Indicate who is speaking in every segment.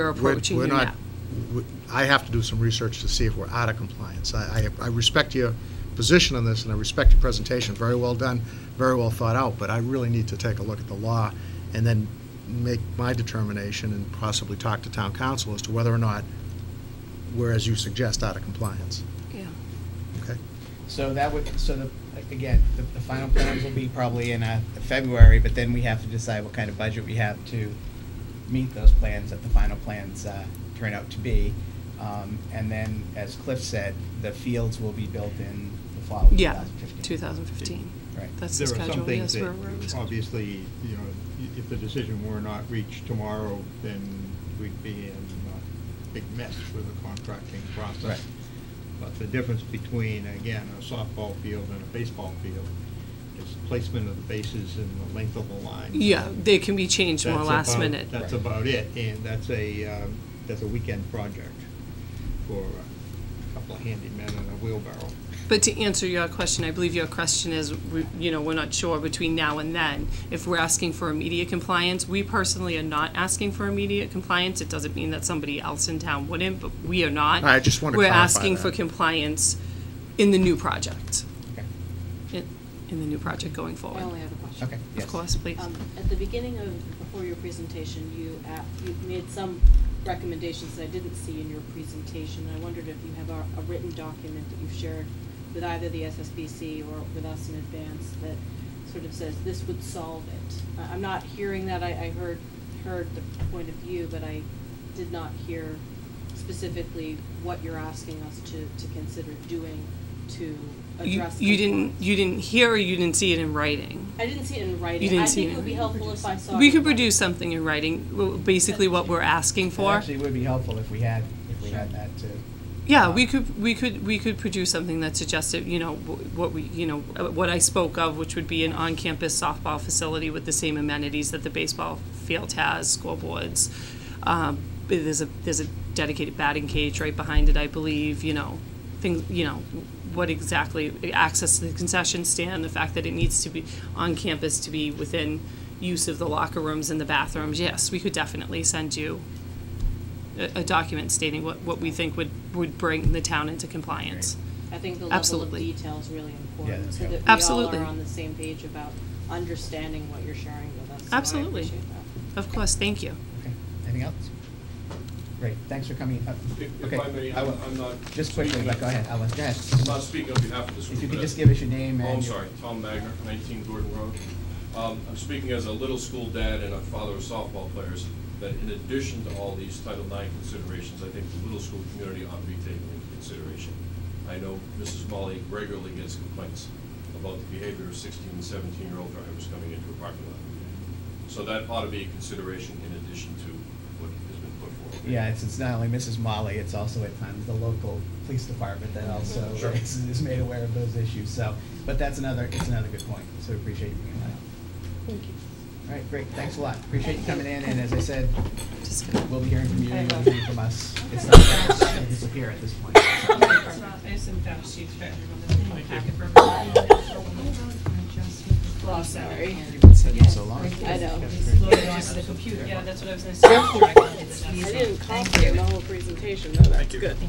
Speaker 1: we're
Speaker 2: We're-
Speaker 1: approaching
Speaker 2: we're
Speaker 1: you
Speaker 2: not-
Speaker 1: now.
Speaker 2: we- I have to do some research to see if we're out of compliance. I, I I respect your position on this, and I respect your presentation, very well done, very well thought out, but I really need to take a look at the law and then make my determination and possibly talk to town council as to whether or not we're, as you suggest, out of compliance.
Speaker 1: Yeah.
Speaker 2: Okay?
Speaker 3: So that would, so the, again, the, the final plans will be probably in, uh, February, but then we have to decide what kind of budget we have to meet those plans, that the final plans, uh, turn out to be. Um, and then, as Cliff said, the fields will be built in the fall of two
Speaker 1: Yeah,
Speaker 3: thousand fifteen.
Speaker 1: 2015.
Speaker 3: Right.
Speaker 1: That's the
Speaker 4: There are some
Speaker 1: schedule,
Speaker 4: things
Speaker 1: yes, we're,
Speaker 4: that,
Speaker 1: we're
Speaker 4: obviously, you know, i- if the decision were not reached tomorrow, then we'd be in a big mess with the contracting
Speaker 3: Right.
Speaker 4: process. But the difference between, again, a softball field and a baseball field is placement of the bases and the length of the line.
Speaker 1: yeah, they can be changed more
Speaker 4: That's
Speaker 1: last
Speaker 4: about-
Speaker 1: minute.
Speaker 4: That's
Speaker 3: Right.
Speaker 4: about it, and that's a, um, that's a weekend project for a couple of handy men and a wheelbarrow.
Speaker 1: But to answer your question, I believe your question is, we- you know, we're not sure between now and then if we're asking for immediate compliance. We personally are not asking for immediate compliance. It doesn't mean that somebody else in town wouldn't, but we are not.
Speaker 2: I just wanna
Speaker 1: We're
Speaker 2: clarify
Speaker 1: asking for
Speaker 2: that.
Speaker 1: compliance in the new project,
Speaker 3: Okay,
Speaker 1: in, in the new project going
Speaker 5: I only
Speaker 1: forward.
Speaker 5: have a question.
Speaker 3: okay, yes.
Speaker 1: Of course, please.
Speaker 5: Um, At the beginning of, before your presentation, you, a- you made some recommendations that I didn't see in your presentation. I wondered if you have a, a written document that you've shared with either the SSBC or with us in advance that sort of says this would solve it. I- I'm not hearing that, I, I heard, heard the point of view, but I did not hear specifically what you're asking us to, to consider doing to
Speaker 1: You,
Speaker 5: address.
Speaker 1: you didn't,
Speaker 5: compliance.
Speaker 1: you didn't hear or you didn't see it in writing?
Speaker 5: I didn't see it in writing.
Speaker 1: You didn't
Speaker 5: I
Speaker 1: see
Speaker 5: think
Speaker 1: it
Speaker 5: it would be
Speaker 1: in
Speaker 5: helpful if I saw.
Speaker 1: We
Speaker 5: it
Speaker 1: could
Speaker 5: in writing.
Speaker 1: produce something in writing, well, basically what we're asking
Speaker 3: It
Speaker 1: for.
Speaker 3: actually would be helpful if we had, if we had that to.
Speaker 1: Yeah, we could, we could, we could produce something that suggested, you know, wh- what we, you know, uh, what I spoke of, which would be an on-campus softball facility with the same amenities that the baseball field has, scoreboards. Um, but there's a, there's a dedicated batting cage right behind it, I believe, you know, things, you know, what exactly, access to the concession stand, the fact that it needs to be on campus to be within use of the locker rooms and the bathrooms. Yes, we could definitely send you a, a document stating what, what we think would, would bring the town into compliance.
Speaker 5: I think the level of
Speaker 1: Absolutely.
Speaker 5: detail is really
Speaker 3: Yeah,
Speaker 5: important,
Speaker 3: that's
Speaker 5: so that we all
Speaker 1: Absolutely.
Speaker 5: are on the same page about understanding what you're sharing with us. So I
Speaker 1: Absolutely.
Speaker 5: appreciate that.
Speaker 1: Of course, thank you.
Speaker 3: Okay, anything else? Great, thanks for coming. Uh,
Speaker 6: If if
Speaker 3: okay,
Speaker 6: I may,
Speaker 3: I
Speaker 6: I'm
Speaker 3: will-
Speaker 6: I'm not.
Speaker 3: Just quickly,
Speaker 6: speaking-
Speaker 3: but go ahead, Alan, go ahead.
Speaker 6: I'm not speaking on behalf of this group.
Speaker 3: If you
Speaker 6: but
Speaker 3: could
Speaker 6: I-
Speaker 3: just give us your name
Speaker 6: Oh,
Speaker 3: and.
Speaker 6: I'm sorry, Tom Magner, 19 Gordon Road. Um, I'm speaking as a little school dad and a father of softball players, that in addition to all these Title IX considerations, I think the little school community ought to be taken into consideration. I know Mrs. Molly regularly gets complaints about the behavior of 16 and 17-year-old drivers coming into a parking lot. So that ought to be a consideration in addition to what has been put forward.
Speaker 3: Yeah, it's, it's not only Mrs. Molly, it's also at times the local police department that also
Speaker 6: Sure.
Speaker 3: is, is made aware of those issues, so, but that's another, it's another good point, so we appreciate you bringing that up.
Speaker 5: Thank you.
Speaker 3: All right, great, thanks a lot, appreciate you coming in, and as I said,
Speaker 1: Just gonna-
Speaker 3: we'll be hearing from you,
Speaker 7: I
Speaker 3: you'll
Speaker 7: will.
Speaker 3: be hearing from us. It's not gonna disappear at this point.
Speaker 7: There's some fact sheets for everyone that's in the packet for everyone.
Speaker 5: Well, I'm sorry.
Speaker 3: You've been sitting so long.
Speaker 5: I know.
Speaker 7: Loaded onto the computer. Yeah, that's what I was gonna say. I can do that.
Speaker 5: I didn't
Speaker 7: Thank
Speaker 5: copy
Speaker 7: you.
Speaker 5: the whole presentation, though, that's good.
Speaker 7: So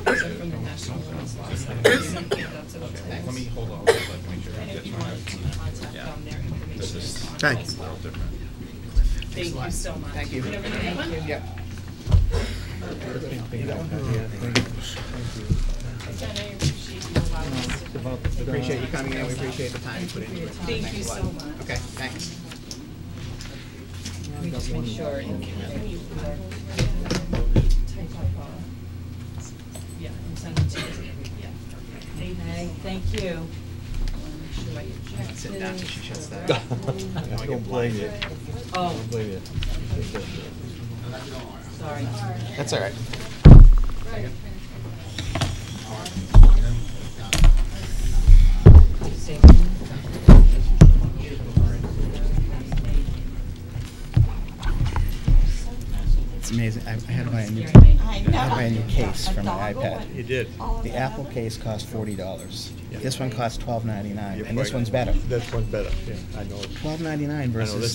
Speaker 7: from the National Women's Law Society, I think that's what it is.
Speaker 8: Let me hold on, let me make sure I
Speaker 7: And if
Speaker 8: get
Speaker 7: you
Speaker 8: my,
Speaker 7: want to contact
Speaker 8: Yeah.
Speaker 7: them, their information
Speaker 8: this
Speaker 7: is
Speaker 8: is
Speaker 7: on
Speaker 8: a
Speaker 2: Thank you.
Speaker 7: Facebook.
Speaker 8: little different.
Speaker 7: Thank you so much.
Speaker 3: Thank you.
Speaker 7: Have a good day.
Speaker 3: Yep.
Speaker 7: Jen, I appreciate you allowing us to.
Speaker 3: Appreciate you coming in, we appreciate the time you put into it.
Speaker 7: Thank you so much.
Speaker 3: Okay, thanks.
Speaker 9: We just make sure. and-
Speaker 7: Type up, uh, Yeah, and send it to everybody, yeah. Thank you so
Speaker 9: Okay,
Speaker 7: much.
Speaker 9: thank you.
Speaker 3: Sit down till she shuts that. Don't blame you.
Speaker 9: Oh. Sorry.
Speaker 3: That's all right.
Speaker 9: Stay-
Speaker 3: It's amazing. I I had to buy a new,
Speaker 7: Scary thing.
Speaker 9: I
Speaker 3: I had to buy a new
Speaker 9: know.
Speaker 3: case for my
Speaker 9: A doggo
Speaker 3: iPad.
Speaker 9: and
Speaker 4: You did.
Speaker 9: all of
Speaker 3: The
Speaker 9: that
Speaker 3: Apple
Speaker 9: other-
Speaker 3: case costs forty dollars.
Speaker 4: Yeah.
Speaker 3: This one costs twelve ninety-nine,
Speaker 4: You're
Speaker 3: and this
Speaker 4: right.
Speaker 3: one's better.
Speaker 4: This one's better, yeah, I know. it.
Speaker 3: Twelve ninety-nine
Speaker 4: I know,
Speaker 3: versus
Speaker 4: this